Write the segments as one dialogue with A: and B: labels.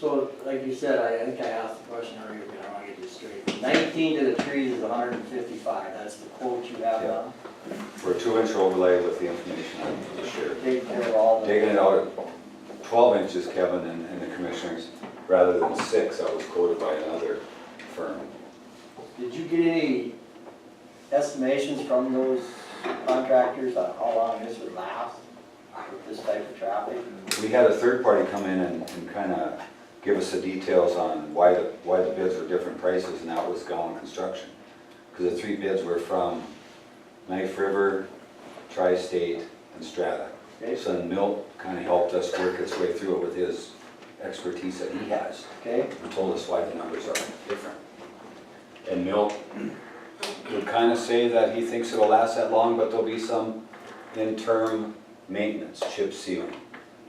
A: So, like you said, I I think I asked the question earlier, but I wanna get this straight. Nineteen to the trees is hundred and fifty-five, that's the quote you have now.
B: For a two-inch overlay with the information I just shared.
A: Take care of all the.
B: Digging it out at twelve inches, Kevin and, and the commissioners, rather than six, I was quoted by another firm.
A: Did you get any estimations from those contractors on how long this would last with this type of traffic?
B: We had a third party come in and, and kinda give us the details on why the, why the bids were different prices, and that was Gowan Construction. Cause the three bids were from Knife River, Tri-State, and Strata.
A: Okay,
B: So then Milt kinda helped us work its way through it with his expertise that he has.
A: okay,
B: and told us why the numbers are different. And Milt would kind of say that he thinks it'll last that long, but there'll be some interim maintenance, chip sealing.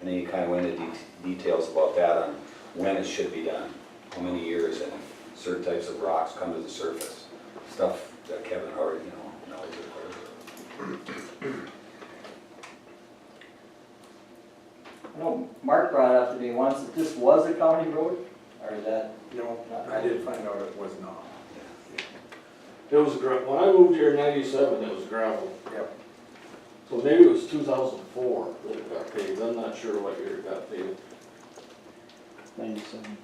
B: And then he kind of went into det- details about that on when it should be done, how many years, and certain types of rocks come to the surface. Stuff that Kevin already, you know, knows. of course.
A: I know Mark brought up to me once that this was a county road, or is that?
C: No,
A: not-
C: I did find out it was not.
D: It was gra, when I moved here in ninety-seven, it was gravel.
C: Yep.
D: So maybe it was two thousand four that it got paved, I'm not sure what year it got paved,
E: Ninety-seven.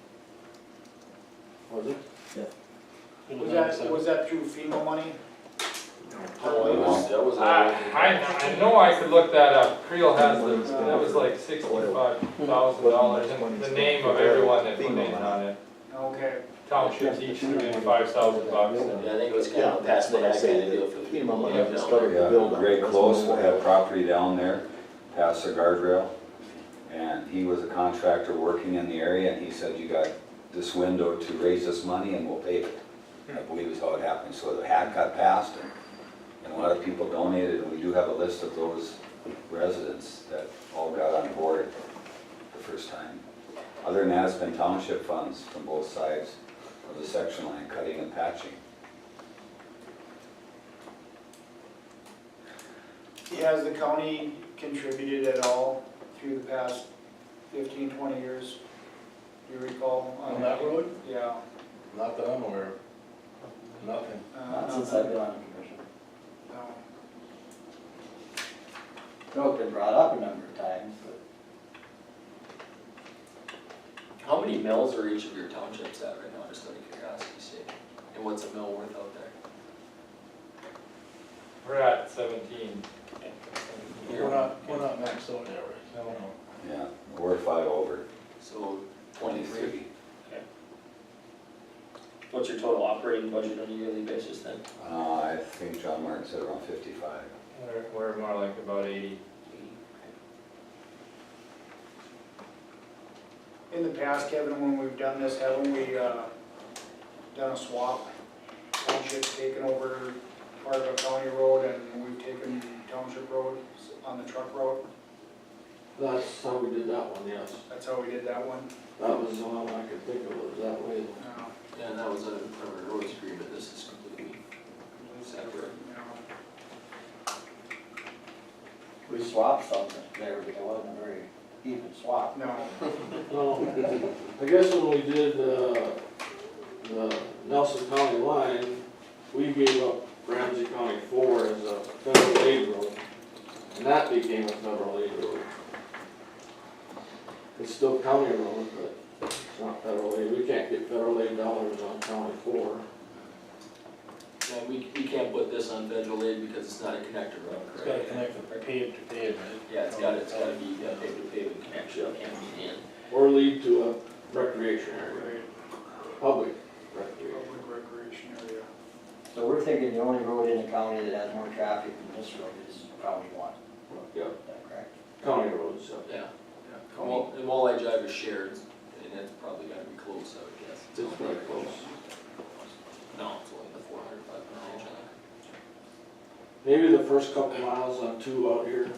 D: was it?
F: Was that, was that through FEMA money?
D: Oh, it was- that was.
G: I, I, I know I could look that up, Creel has those, but that was like sixty-five thousand dollars, and the name of everyone that put in on it.
F: Okay.
G: Townships each threw in five thousand bucks, and
H: Yeah, I think it was kind of past the back end deal for the.
E: FEMA money,
H: Yeah.
E: just covered the build
B: Yeah, Greg Close had property down there, past the guardrail, and he was a contractor working in the area, and he said, you got this window to raise this money and we'll pay it. I believe is how it happened, so the hat got passed, and- and a lot of people donated, and we do have a list of those residents that all got on board the first time. Other than that, it's been township funds from both sides of the section line, cutting and patching.
F: Has the county contributed at all through the past 15, 20 years? Do you recall?
D: On that road?
F: Yeah.
D: Not that I'm aware of, nothing.
F: uh,
A: Not since I've been on the commission.
F: no.
A: No, it's been brought up a number of times, but
H: How many mills are each of your townships at right now, just out of curiosity, sake? And what's a mill worth out there?
G: we're at seventeen.
H: We're
D: not, we're not maxed out there, I don't know.
B: Yeah, we're five over.
H: So twenty-three.
B: Twenty-three.
H: What's your total operating budget on a yearly basis then?
B: Uh, I think John Martin said around fifty-five.
G: We're, we're more like about eighty.
F: In the past, Kevin, when we've done this, haven't we uh, done a swap? Township's taken over part of a county road and we've taken township road on the truck road.
D: That's how we did that one, yes,
F: That's how we did that one.
D: that was the one I could think of, it was that way.
F: Uh,
H: Yeah, and that was a, a roads agreement, this is completely separate.
F: you
A: we swapped something there, but it wasn't a very even swap.
F: know, No.
D: No, I guess when we did, uh, the Nelson County line, we gave up Ramsey County four as a federal aid road. And that became a federal aid road. It's still county road, but it's not federal aid, we can't get federal aid dollars on county four.
H: Yeah, we, we can't put this on federal aid because it's not a connected road, correct?
D: with paved to paved,
H: Yeah, it's gotta, it's gotta be, uh, paved to paved connection, it can't be in.
D: Or lead to a recreation area, public recreation.
F: Public recreation area.
A: So we're thinking the only road in the county that has more traffic than this road is County One,
D: Yeah,
A: is that correct?
D: county roads, so.
H: Yeah, yeah. And Wall- And Walleye Drive is shared, and it's probably gotta be close, I would guess.
D: It's pretty close.
H: No, it's only the four hundred, five hundred range, I
D: Maybe the first couple miles on two out here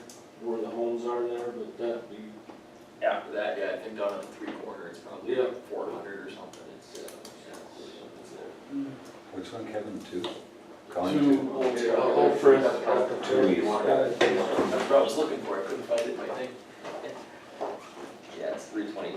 D: where the homes are there, but that'd be,
H: think. After that, yeah, I think down on the three corner, it's probably
D: Yeah.
H: like four hundred or something, it's, uh, yeah, it's uh, there.
D: Hmm.
B: Which one, Kevin, two? Colin,
D: two, okay, I'll go first after
B: Two,
D: two.
B: you want that?
H: That's what I was looking for, I couldn't find it in my thing. Yeah, it's three twenty